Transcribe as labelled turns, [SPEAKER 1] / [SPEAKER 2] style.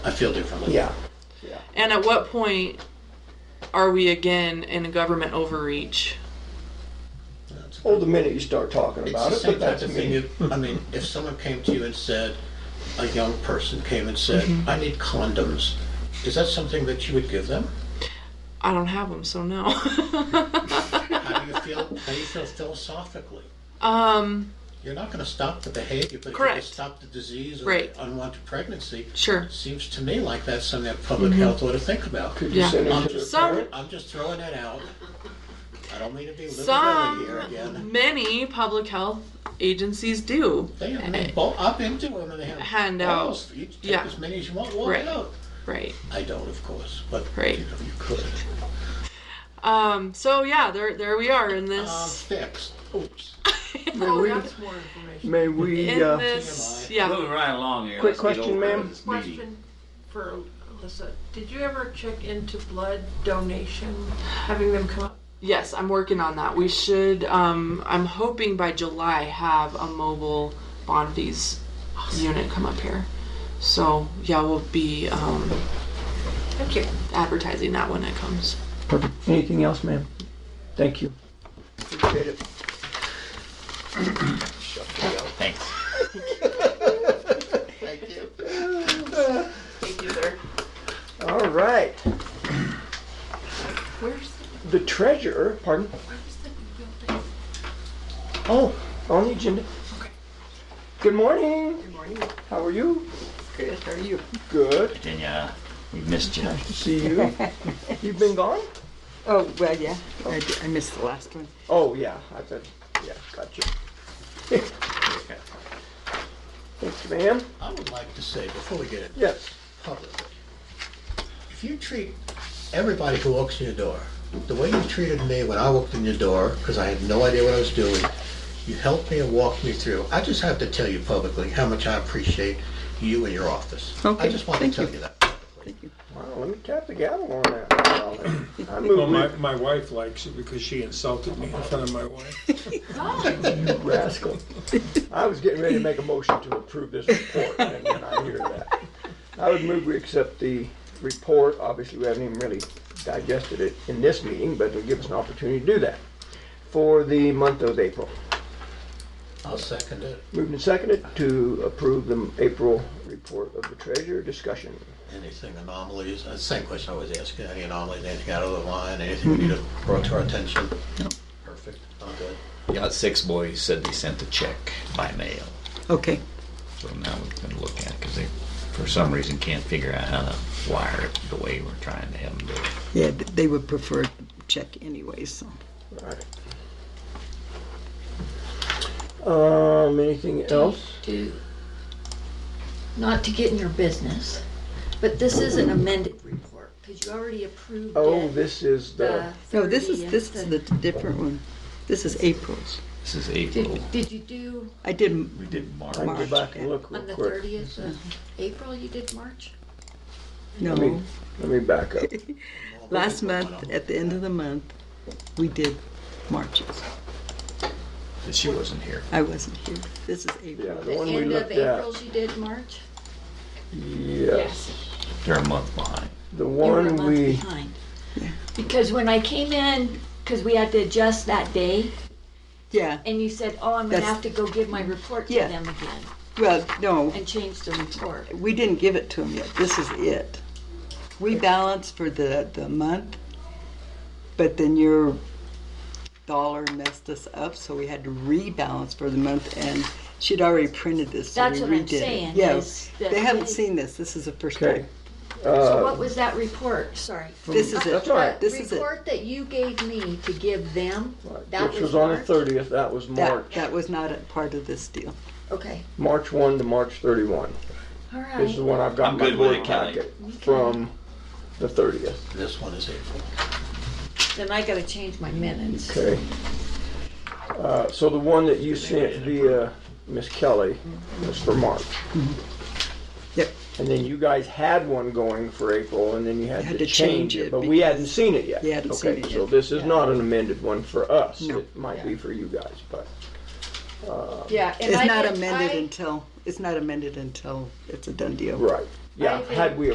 [SPEAKER 1] I feel differently.
[SPEAKER 2] Yeah. Yeah.
[SPEAKER 3] And at what point are we again in a government overreach?
[SPEAKER 1] That's-
[SPEAKER 2] Well, Oh, the minute you start talking
[SPEAKER 1] It's
[SPEAKER 2] about
[SPEAKER 1] the
[SPEAKER 2] it,
[SPEAKER 1] same
[SPEAKER 2] but
[SPEAKER 1] type
[SPEAKER 2] that's
[SPEAKER 1] of thing.
[SPEAKER 2] me.
[SPEAKER 1] if- I mean, if someone came to you and said, a young person came and said,
[SPEAKER 2] Mm-hmm.
[SPEAKER 1] I need condoms, is that something that you would give them?
[SPEAKER 3] I don't have them, so no.
[SPEAKER 1] How do you feel, how do you feel philosophically?
[SPEAKER 3] um,
[SPEAKER 1] You're not gonna stop the behavior, but if you can
[SPEAKER 3] Correct.
[SPEAKER 1] stop the disease or
[SPEAKER 3] Right.
[SPEAKER 1] the unwanted pregnancy,
[SPEAKER 3] sure.
[SPEAKER 1] it seems to me like that's something that public
[SPEAKER 2] Mm-hmm.
[SPEAKER 1] health ought to think about.
[SPEAKER 2] Could you
[SPEAKER 3] Yeah.
[SPEAKER 2] send
[SPEAKER 1] I'm
[SPEAKER 2] it to the
[SPEAKER 1] just,
[SPEAKER 3] Some-
[SPEAKER 2] parent?
[SPEAKER 1] throwing- I'm just throwing that out. I don't mean to be liberal here again.
[SPEAKER 3] Some, many public health agencies do.
[SPEAKER 1] They, I mean, bolt up into them and they have
[SPEAKER 3] Hand out.
[SPEAKER 1] bottles for You take
[SPEAKER 3] Yeah.
[SPEAKER 1] as many as you want, walk
[SPEAKER 3] Right.
[SPEAKER 1] out.
[SPEAKER 3] Right.
[SPEAKER 1] I don't, of course, but
[SPEAKER 3] Right.
[SPEAKER 1] you know, you could.
[SPEAKER 3] Um, so yeah, there there we are in
[SPEAKER 1] Uh,
[SPEAKER 3] this.
[SPEAKER 1] fixed. Oops.
[SPEAKER 2] May we,
[SPEAKER 4] More information.
[SPEAKER 2] may we,
[SPEAKER 3] in
[SPEAKER 2] uh,
[SPEAKER 3] this, yeah.
[SPEAKER 5] Moving right along here.
[SPEAKER 2] Quick
[SPEAKER 5] Let's get
[SPEAKER 2] question,
[SPEAKER 5] over
[SPEAKER 2] ma'am.
[SPEAKER 5] to this meeting.
[SPEAKER 4] Question for Alyssa. Did you ever check into blood donation, having them come up?
[SPEAKER 3] Yes, I'm working on that. We should. Um, I'm hoping by July have a mobile Bondi's unit come up here. So yeah, we'll be um,
[SPEAKER 4] Thank you.
[SPEAKER 3] advertising that when it comes.
[SPEAKER 2] perfect. Anything else, ma'am? Thank you. Appreciate it.
[SPEAKER 5] Thanks.
[SPEAKER 4] Thank you, sir.
[SPEAKER 2] All right.
[SPEAKER 4] Where's
[SPEAKER 2] The treasurer, pardon?
[SPEAKER 4] the, where's the new building?
[SPEAKER 2] Oh, on the agenda. Good morning.
[SPEAKER 4] Good morning.
[SPEAKER 2] How are you?
[SPEAKER 4] Good, how are you?
[SPEAKER 2] Good.
[SPEAKER 5] Virginia, we missed you.
[SPEAKER 2] Nice to see you. You've been gone?
[SPEAKER 6] Oh, well, yeah, I, d- I missed the last one.
[SPEAKER 2] Oh, yeah. I said, yeah, gotcha. Thanks, ma'am.
[SPEAKER 1] I would like to say before we get into
[SPEAKER 2] Yes.
[SPEAKER 1] publicly. If you treat everybody who walks in your door the way you treated me when I walked in your door, because I had no idea what I was doing, you helped me and walked me through. I just have to tell you publicly how much I appreciate you and your office. I
[SPEAKER 6] Okay,
[SPEAKER 1] just want to
[SPEAKER 6] thank
[SPEAKER 1] tell
[SPEAKER 6] you.
[SPEAKER 1] you that.
[SPEAKER 2] Wow, let me tap the gavel on that. I
[SPEAKER 7] Well, my,
[SPEAKER 2] move
[SPEAKER 7] my wife likes it because she insulted me in front of my wife.
[SPEAKER 2] you rascal. I was getting ready to make a motion to approve this report, and then I hear that. I would move we accept the report. Obviously, we haven't even really digested it in this meeting, but it'll give us an opportunity to do that for the month of April.
[SPEAKER 1] I'll second it.
[SPEAKER 2] Moved and seconded to approve the April report of the treasurer. Discussion.
[SPEAKER 1] Anything anomalies, uh, same question I always ask, any anomalies, anything out of the line, anything we need to brought to our attention? Perfect, all good.
[SPEAKER 5] Got six boys said they sent the check by mail.
[SPEAKER 6] Okay,
[SPEAKER 5] So now we're going to look at it because they, for some reason, can't figure out how to wire it the way we're trying to have them do it.
[SPEAKER 6] yeah, th- they would prefer check anyway, so.
[SPEAKER 2] All right. Um, anything else?
[SPEAKER 8] to, not to get in your business, but this is an amended report, because you already approved it. Uh,
[SPEAKER 2] Oh, this is the,
[SPEAKER 8] the
[SPEAKER 6] No, this is,
[SPEAKER 8] 30th,
[SPEAKER 6] this is the different one. This is April's.
[SPEAKER 5] This is April.
[SPEAKER 8] Did, did you do
[SPEAKER 6] I did,
[SPEAKER 5] We did March.
[SPEAKER 2] I can go back and look real
[SPEAKER 8] on the
[SPEAKER 2] quick.
[SPEAKER 8] thirtieth of April, you did March?
[SPEAKER 2] Let me,
[SPEAKER 6] no,
[SPEAKER 2] let me back up.
[SPEAKER 6] last month, at the end of the month, we did Marches.
[SPEAKER 5] She wasn't here.
[SPEAKER 6] I wasn't here. This is
[SPEAKER 2] Yeah,
[SPEAKER 6] April.
[SPEAKER 2] the one we
[SPEAKER 8] End of
[SPEAKER 2] looked at.
[SPEAKER 8] April's you did March?
[SPEAKER 2] Yes,
[SPEAKER 5] They're a month behind.
[SPEAKER 2] the
[SPEAKER 8] You were a
[SPEAKER 2] one
[SPEAKER 8] month
[SPEAKER 2] we, uh,
[SPEAKER 8] behind. Because when I came in, because we had to adjust that day,
[SPEAKER 6] Yeah,
[SPEAKER 8] and you said, oh, I'm gonna
[SPEAKER 6] That's-
[SPEAKER 8] have to go give my report to
[SPEAKER 6] Yeah.
[SPEAKER 8] them again,
[SPEAKER 6] well, no,
[SPEAKER 8] and change the report.
[SPEAKER 6] we didn't give it to them yet. This is it. We balance for the, the month, but then your dollar messed us up, so we had to rebalance for the month, and she'd already printed this, so
[SPEAKER 8] That's
[SPEAKER 6] we
[SPEAKER 8] what I'm
[SPEAKER 6] redid it.
[SPEAKER 8] saying,
[SPEAKER 6] Yeah.
[SPEAKER 8] is that
[SPEAKER 6] they haven't
[SPEAKER 8] they-
[SPEAKER 6] seen this. This is the first
[SPEAKER 2] okay.
[SPEAKER 6] time.
[SPEAKER 8] So
[SPEAKER 2] Uh,
[SPEAKER 8] what was that report? Sorry.
[SPEAKER 6] This is
[SPEAKER 2] That's
[SPEAKER 6] it.
[SPEAKER 2] all right.
[SPEAKER 6] This is
[SPEAKER 8] The
[SPEAKER 6] it.
[SPEAKER 8] report that you gave me to give them, that was
[SPEAKER 2] which was on the
[SPEAKER 8] March?
[SPEAKER 2] thirtieth, that was
[SPEAKER 6] That,
[SPEAKER 2] March,
[SPEAKER 6] that was not a part of this deal.
[SPEAKER 8] Okay,
[SPEAKER 2] March one to March thirty-one.
[SPEAKER 8] all
[SPEAKER 2] This is the
[SPEAKER 8] right.
[SPEAKER 2] one I've got
[SPEAKER 5] I'm
[SPEAKER 2] in my
[SPEAKER 5] good with
[SPEAKER 2] board
[SPEAKER 5] it, Kelly.
[SPEAKER 2] packet from the thirtieth,
[SPEAKER 1] This one is April.
[SPEAKER 8] Then I gotta change my minutes.
[SPEAKER 2] okay? Uh, so the one that you sent via Miss Kelly was for March.
[SPEAKER 6] Mm-hmm. Yep.
[SPEAKER 2] And then you guys had one going for April, and then you had to change it, but we
[SPEAKER 6] because-
[SPEAKER 2] hadn't seen it yet.
[SPEAKER 6] You hadn't seen
[SPEAKER 2] Okay,
[SPEAKER 6] it
[SPEAKER 2] So
[SPEAKER 6] yet.
[SPEAKER 2] this is not an amended one for us.
[SPEAKER 6] No.
[SPEAKER 2] It might be for you guys, but,
[SPEAKER 8] Yeah. and
[SPEAKER 6] It's
[SPEAKER 8] I
[SPEAKER 6] not
[SPEAKER 8] did-
[SPEAKER 6] amended
[SPEAKER 8] I-
[SPEAKER 6] until, it's not amended until it's a done deal.
[SPEAKER 2] right. Yeah,
[SPEAKER 8] I
[SPEAKER 2] had we